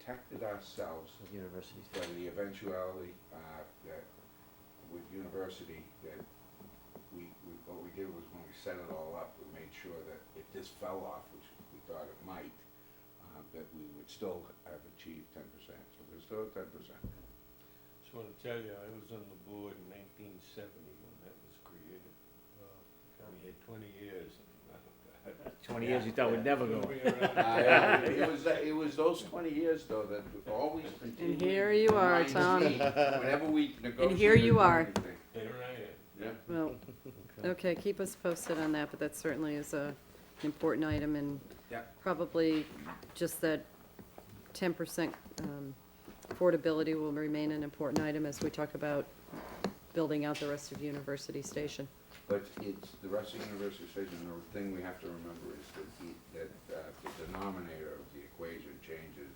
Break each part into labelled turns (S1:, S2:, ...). S1: protected ourselves
S2: the universities.
S1: for the eventuality, uh, that with university, that we, we, what we did was when we set it all up, we made sure that if this fell off, which we thought it might, uh, that we would still have achieved ten percent, so we're still at ten percent.
S3: Just wanna tell you, I was on the board in nineteen seventy when that was created. We had twenty years. and, oh, God.
S2: Twenty years you thought would never go.
S3: Nobody around.
S1: Uh, It was, it was those twenty years though that always continued.
S4: And here you are,
S1: reminds
S4: Tom.
S1: me Whenever we negotiated.
S4: here you are.
S1: anything.
S3: There I am.
S1: Yeah,
S4: Well, okay, keep us posted on that, but that certainly is a, an important item and
S1: Yeah.
S4: probably just that ten percent, um, affordability will remain an important item as we talk about building out the rest of University Station.
S1: but it's, the rest of University Station, the thing we have to remember is that the, that, uh, the denominator of the equation changes,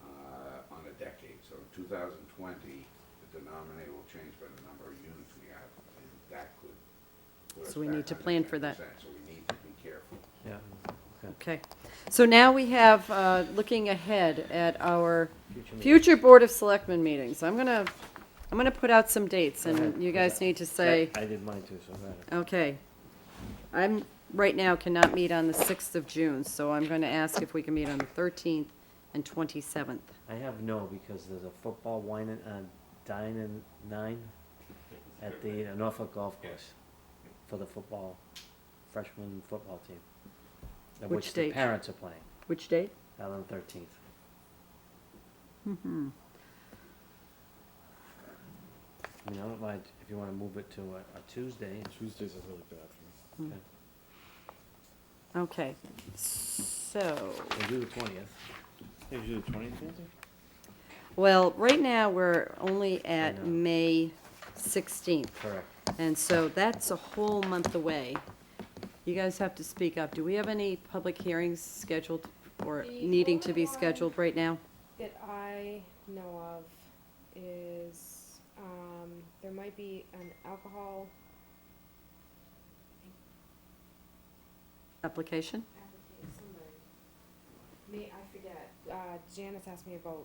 S1: uh, on a decade, so in two thousand twenty, the denominator will change by the number of units we have, and that could. put us
S4: So we
S1: back
S4: need to
S1: under
S4: plan for that.
S1: 10%, So we need to be careful.
S2: Yeah.
S4: Okay, so now we have, uh, looking ahead at our
S2: Future meetings.
S4: future Board of Selectmen meetings. I'm gonna, I'm gonna put out some dates and
S2: Okay.
S4: you guys need to say.
S2: I did mine too, so I got it.
S4: Okay. I'm, right now cannot meet on the 6th of June, so I'm going to ask if we can meet on the 13th and 27th.
S2: I have no, because there's a football wine and, uh, dine and nine at the Norfolk Golf Course for the football, freshman football team. Of
S4: Which
S2: which the
S4: date?
S2: parents are playing,
S4: Which date?
S2: out on the thirteenth.
S4: Mm-hmm.
S2: I mean, I don't mind if you wanna move it to a, a Tuesday,
S5: Tuesdays are really bad for
S2: okay,
S4: Okay, so,
S2: we'll do the twentieth.
S5: me. Hey, you do the twentieth,
S4: well, right now, we're only at
S2: know.
S4: May 16th,
S2: Correct.
S4: and so that's a whole month away. You guys have to speak up. Do we have any public hearings scheduled or
S6: The
S4: needing to be
S6: only one-
S4: scheduled right now?
S6: that I know of is, um, there might be an alcohol
S4: Application?
S6: advocate, somebody. Me, I forget, uh, Janice asked me about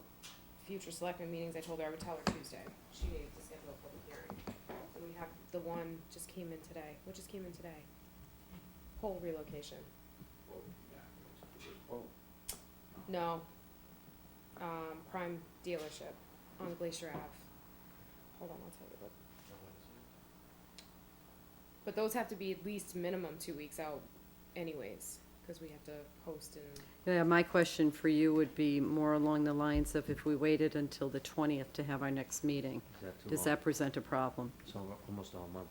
S6: future selectmen meetings, I told her I would tell her Tuesday, she needed to schedule a public hearing. And we have, the one just came in today, what just came in today? Whole relocation,
S1: Well, yeah.
S6: no, um, prime dealership on Glacier Ave. Hold on, I'll tell you what But those have to be at least minimum two weeks out anyways, because we have to post and.
S4: Yeah, my question for you would be more along the lines of if we waited until the twentieth to have our next meeting,
S2: Is that too
S4: does
S2: long?
S4: that present a problem?
S2: So we're almost all month.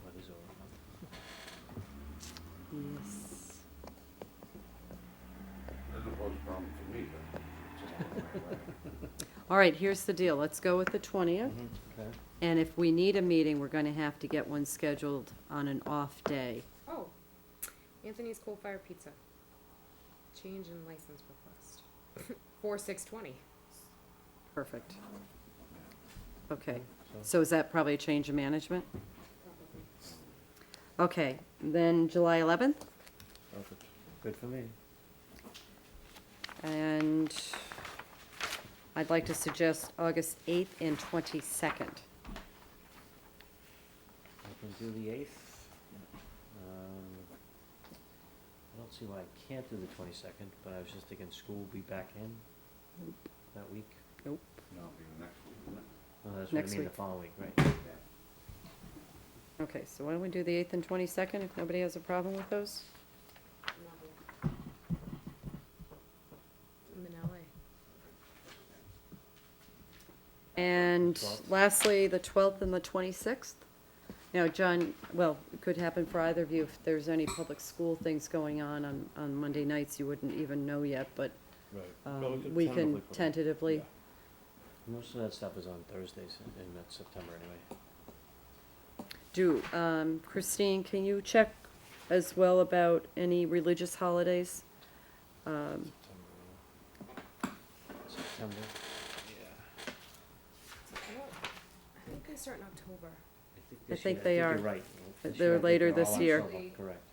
S2: What is over a month?
S4: Yes.
S1: Doesn't pose a problem for me, but it's just one of my life.
S4: All right, here's the deal, let's go with the twentieth,
S2: Okay.
S4: and if we need a meeting, we're gonna have to get one scheduled on an off day.
S6: Oh, Anthony's Coal Fire Pizza. Change in license request. Four six twenty.
S4: Perfect. Okay, so is that probably a change of management? Okay, then July eleventh,
S5: Perfect.
S2: Good for me.
S4: and I'd like to suggest August eighth and twenty-second.
S2: I can do the eighth. Um, I don't see why I can't do the twenty-second, but I was just thinking school will be back in that week.
S1: No, it'll be the next week, wouldn't it?
S2: Oh, that's what I
S4: Next
S2: mean, the
S4: week.
S2: following week, right?
S4: Okay, so why don't we do the eighth and twenty-second, if nobody has a problem with those?
S6: I'm in LA.
S4: And
S2: 12th.
S4: lastly, the twelfth and the twenty-sixth. Now, John, well, it could happen for either of you, if there's any public school things going on on, on Monday nights, you wouldn't even know yet, but,
S5: Right. Well,
S4: um, we can
S5: put it-
S4: tentatively.
S5: yeah.
S2: Most of that stuff is on Thursdays in, in that September anyway.
S4: Do, um, Christine, can you check as well about any religious holidays? Um,
S2: September,
S6: oh, I think they start in October.
S2: this
S4: think
S2: year-
S4: they
S2: I
S4: are.
S2: think you're right. This
S4: They're
S2: year I think
S4: later
S2: they're all
S4: this
S2: on
S4: year.
S2: Silver, Correct.